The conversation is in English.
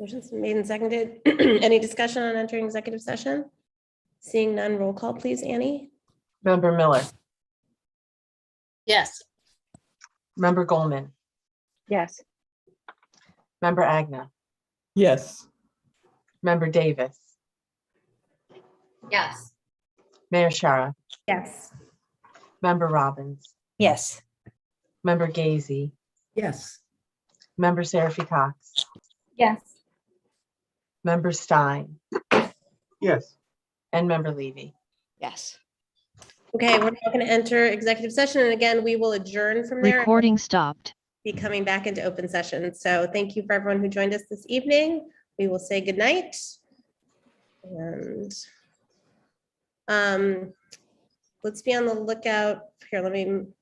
Motion's been made and seconded. Any discussion on entering executive session? Seeing none, roll call, please, Annie. Member Miller, Yes. member Goldman, Yes. member Agna, Yes. member Davis, Yes. Mayor Shara, Yes. member Robbins, Yes. member Gazy, Yes. member Seraphy Cox, Yes. member Stein, Yes. and member Levy. Yes. Okay, we're now going to enter executive session, and again, we will adjourn from there. Recording stopped. Be coming back into open session. So thank you for everyone who joined us this evening. We will say goodnight. And um, let's be on the lookout. Here, let me